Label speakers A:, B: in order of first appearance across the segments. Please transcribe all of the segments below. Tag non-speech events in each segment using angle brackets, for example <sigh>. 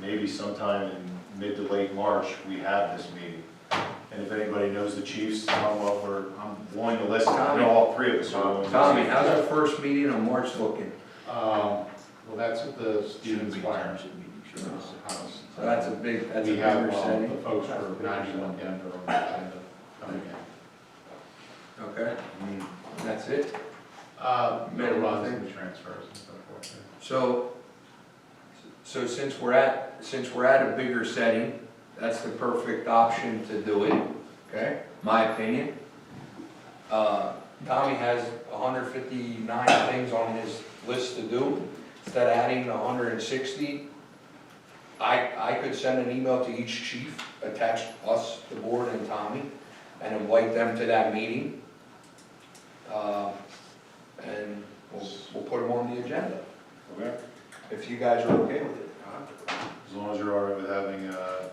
A: maybe sometime in mid to late March, we have this meeting. And if anybody knows the chiefs, I'm, well, we're- I'm willing to listen, I know all three of us are willing to
B: Tommy,
A: listen.
B: how's our first meeting in March looking?
C: Um, well, that's what the students choir
B: So
C: house.
B: that's a big, that's a
C: We
B: big
C: have uh,
B: percentage.
C: the folks for ninety-one Denver on the agenda coming in.
B: Okay,
A: Mm,
B: that's it.
C: Uh, no runs in the transfers and so forth.
B: So, so since we're at, since we're at a bigger setting, that's the perfect option to do it, okay? My opinion. Uh, Tommy has hundred fifty-nine things on his list to do, instead of adding hundred and sixty. I, I could send an email to each chief, attach us, the board and Tommy, and invite them to that meeting. Uh, and we'll, we'll put them on the agenda
A: Okay,
B: if you guys are okay with it.
A: as long as you're all right with having, uh,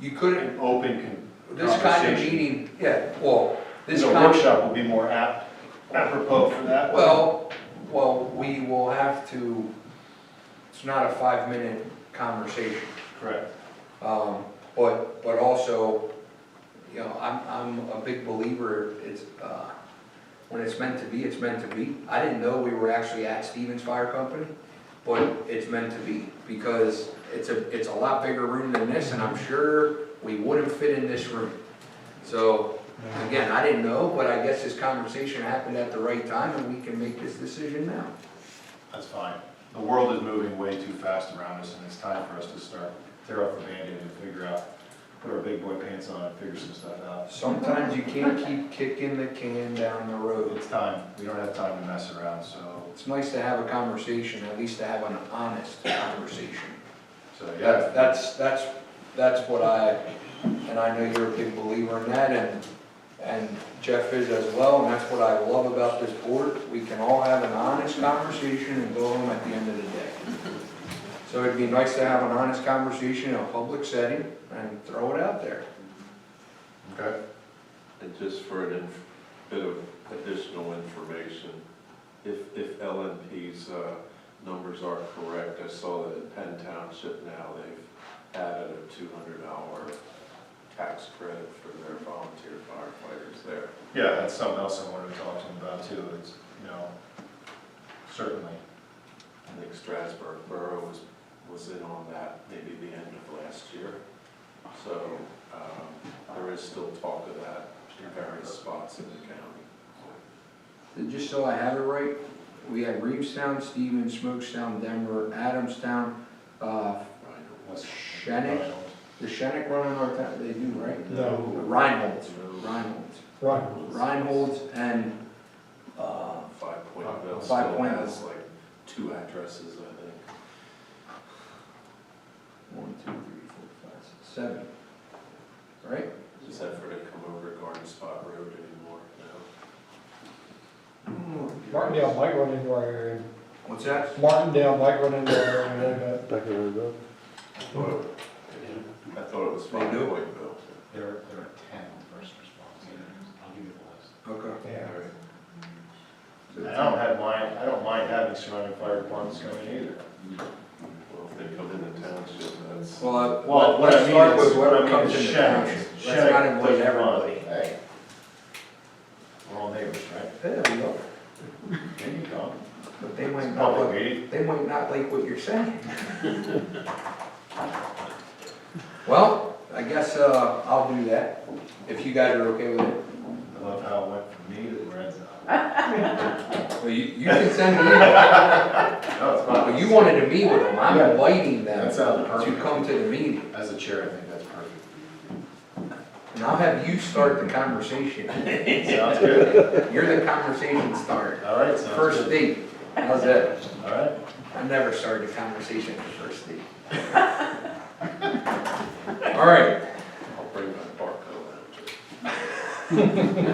B: You couldn't,
A: an open con-
B: this kind of
A: Conversation.
B: meeting, yeah, well, this
A: The
B: kind,
A: workshop will be more apt, apropos for that.
B: well, well, we will have to, it's not a five-minute conversation.
A: Correct.
B: Um, but, but also, you know, I'm, I'm a big believer, it's, uh, when it's meant to be, it's meant to be. I didn't know we were actually at Stevens Fire Company, but it's meant to be, because it's a, it's a lot bigger room than this, and I'm sure we wouldn't fit in this room. So, again, I didn't know, but I guess this conversation happened at the right time, and we can make this decision now.
A: That's fine. The world is moving way too fast around us, and it's time for us to start tear off the Band-Aid and figure out, put our big boy pants on and figure some stuff out.
B: Sometimes you can't keep kicking the can down the road.
A: It's time. We don't have time to mess around, so,
B: It's nice to have a conversation, at least to have an honest conversation.
A: so, yeah.
B: That's, that's, that's, that's what I, and I know you're a big believer in that, and, and Jeff is as well, and that's what I love about this board. We can all have an honest conversation and go home at the end of the day. So it'd be nice to have an honest conversation in a public setting and throw it out there.
A: Okay.
D: And just for an inf- bit of additional information, if, if LNP's uh, numbers are correct, I saw that in Penn Township now, they've added a two hundred hour tax credit for their volunteer firefighters there.
A: Yeah, that's something else I wanted to talk to him about too, is, you know, certainly.
D: I think Strasburg Borough was, was in on that maybe the end of last year. So um, there is still talk of that in various spots in the county.
B: And Just so I have it right, we had Reevestown, Stevens, Smokestown, Denver, Adamstown, uh,
A: what's-
B: Shannon? The Shennick run in our town, they do, right?
C: No.
B: Reinhold's, Reinhold's,
C: Right.
B: Reinhold's and, uh,
D: Five Point Mill
B: Five
D: still
B: Point
D: has like two addresses, I think.
B: one, two, three, four, five, six, seven. Right?
D: Is that for to come over Garden Spot Road anymore? No.
E: Martindale might run into our area.
B: What's that?
E: Martindale might run into our area a little bit.
D: I thought it- I thought it was
B: They
D: Five
B: do?
D: Point Mill.
C: There, there are ten first responders. I'll give you the list.
B: Okay.
E: Yeah.
A: I don't have mind, I don't mind having surrounding fire departments come in either.
D: Well, if they come in the township, that's.
B: Well, uh, I-
A: Well, what I
B: let's
A: mean
B: start
A: is-
B: with
A: what I
B: whatever
A: mean
B: comes
A: is
B: in the
A: Shennick-
B: township. Let's
A: Shennick
B: not avoid
A: doesn't run.
B: everybody.
A: Hey. We're all neighbors, right?
B: There we go.
A: There you go.
B: But they might
A: It's
B: not,
A: public
B: like-
A: meeting.
B: they might not like what you're saying. <laughs> Well, I guess, uh, I'll do that, if you guys are okay with it.
A: I love how it went from me to Lorenzo.
B: Well, you, you can send me, in.
A: No, it's
B: but
A: fine.
B: you wanted to meet with them, I'm inviting them
A: That
B: to
A: sounds perfect.
B: come to the meeting,
A: As a chair, I think that's perfect.
B: and I'll have you start the
A: <laughs>
B: conversation.
A: Sounds
B: <laughs>
A: good.
B: You're the conversation starter.
A: All right, sounds
B: First
A: good.
B: date, how's that?
A: All right.
B: I never started a conversation at the first
A: <laughs>
B: date. All right,
D: I'll bring my Barco out.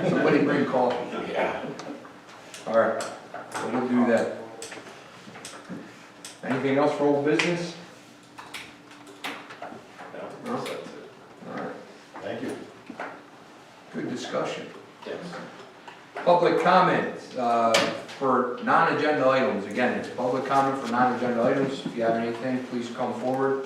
B: somebody bring coffee.
D: Yeah.
B: All right, so we'll do that. Anything else for old business?
D: No, that's it.
B: All right,
A: Thank you.
B: good discussion.
D: Yes.
B: Public comments, uh, for non-agenda items, again, it's public comment for non-agenda items, if you have anything, please come forward.